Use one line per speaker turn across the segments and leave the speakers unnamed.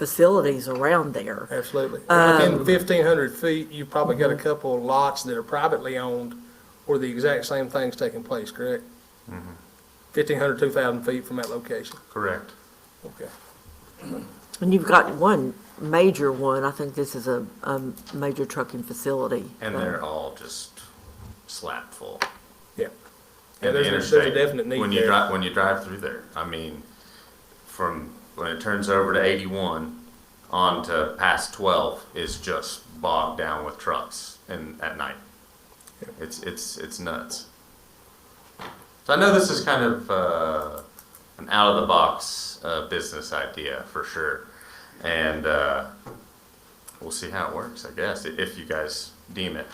facilities around there.
Absolutely.
Um,
Within fifteen hundred feet, you've probably got a couple of lots that are privately owned where the exact same thing's taking place, correct?
Mm-hmm.
1,500, 2,000 feet from that location,
Correct.
okay.
And you've got one major one, I think this is a, a major trucking facility. Uh,
And they're all just slap full.
Yeah. Yeah,
And the
there's, a- there's a
interstate,
definite need
When you
there.
drive, when you drive through there, I mean, from when it turns over to eighty-one on to past twelve is just bogged down with trucks and at night. It's, it's, it's nuts. So I know this is kind of, uh, an out-of-the-box, uh, business idea for sure. And, uh, we'll see how it works, I guess, i- if you guys deem it.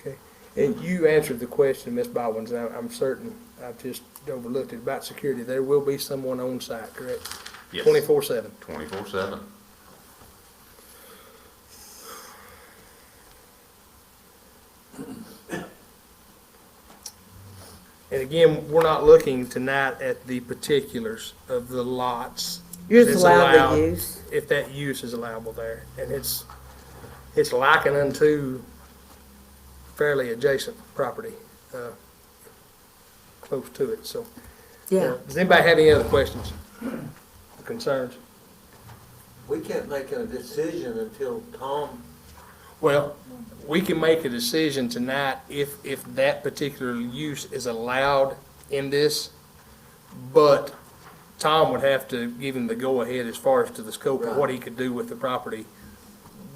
Okay. And you answered the question, Ms. Baldwin, and I- I'm certain, I've just overlooked it, about security. There will be someone on site, correct?
Yes.
Twenty-four seven.
Twenty-four seven.
And again, we're not looking tonight at the particulars of the lots.
You're just
that's
allowed to use.
If that use is allowable there, and it's, it's likened unto fairly adjacent property, uh, close to it, so.
Yeah.
Does anybody have any other questions, or concerns?
We can't make a decision until Tom,
Well, we can make a decision tonight if, if that particular use is allowed in this, but Tom would have to give him the go-ahead as far as to the scope of what he could do with the property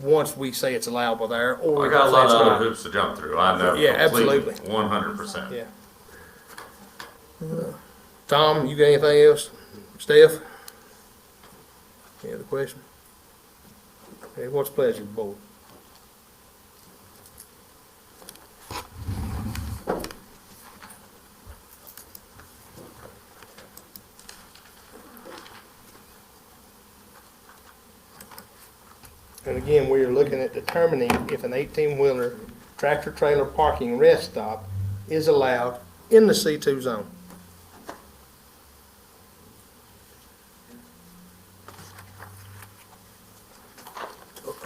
once we say it's allowable there, or.
I got uh, a
if
lot of
that's not.
other hoops to jump through. I know.
Yeah, absolutely.
One hundred percent.
Yeah. Tom, you got anything else? Steph? Any other question? Okay, what's the pleasure, board? And again, we are looking at determining if an eighteen-wheeler tractor-trailer parking rest stop is allowed in the C2 zone.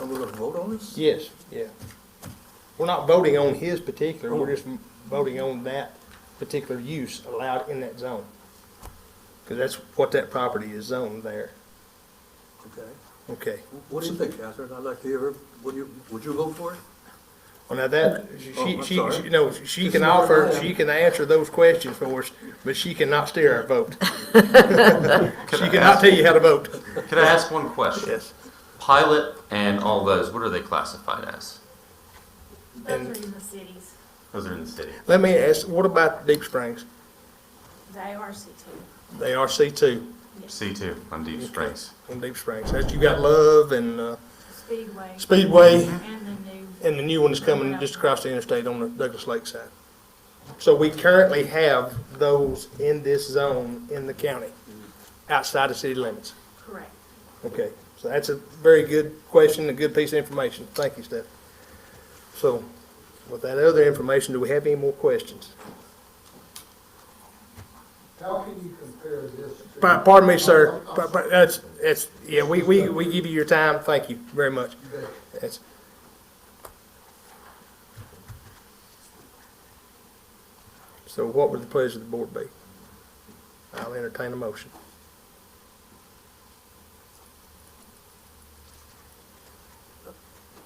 are we gonna uh, vote on this?
Yes. Yeah. We're not voting on his particular, we're just voting on that particular use allowed in that zone. Because that's what that property is zoned there.
Okay.
Okay.
What do you think, Catherine? I'd like to hear, her. would you, would you vote for it?
Well, now that, she,
I'm
she,
sorry.
you know, she
This
can
is not
offer,
right.
she can answer those questions for us, but she cannot steer our vote. She cannot tell you how to vote.
Could I ask one question?
Yes.
Pilot and all those, what are they classified as?
And-
Those are in the cities,
Those are in the city.
Let me ask, what about Deep Springs?
they are C two.
They are C2
C two on Deep Springs.
in Deep Springs. That's- You got Love and uh,
Speedway
Speedway.
and the new,
And the new one is coming just across the interstate on the Douglas Lake side. So we currently have those in this zone in the county, outside the city limits.
correct.
Okay, so that's a very good question, a good piece of information. Thank you, Steph. So with that other information, do we have any more questions?
How can you compare this to?
Pa- Pardon me, sir. Pa- pa- That's, that's, yeah, we, we, we give you your time. Thank you very much. That's, so what would the pleasure of the board be? I'll entertain a motion.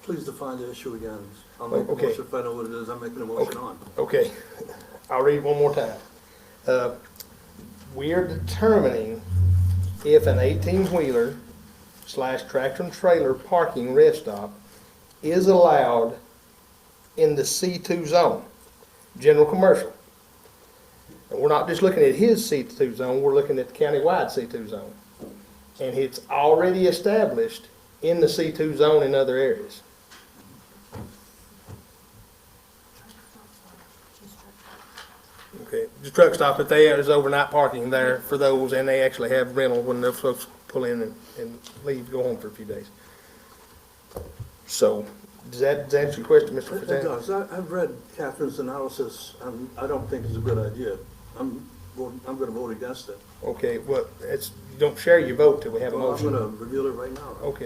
Please define the issue again. I'll make a
Okay.
motion if I know what it is. I'm making a motion on.
Okay, I'll read it one more time. Uh, We are determining if an eighteen-wheeler slash tractor and trailer parking rest stop is allowed in the C two zone, general commercial. And we're not just looking at his C two zone, we're looking at the countywide C two zone. And it's already established in the C two zone in other areas. Okay, the truck stop that they have is overnight parking there for those, and they actually have rental when those folks pull in and, and leave, go home for a few days. So, does that, does that answer your question, Mr.
It it
President?
does. I, I've read Catherine's analysis, and I don't think it's a good idea. I'm, voting- I'm gonna vote against it.
Okay, well, it's, you don't share your vote till we have a
Well, I'm
motion.
gonna reveal it right now.
Okay.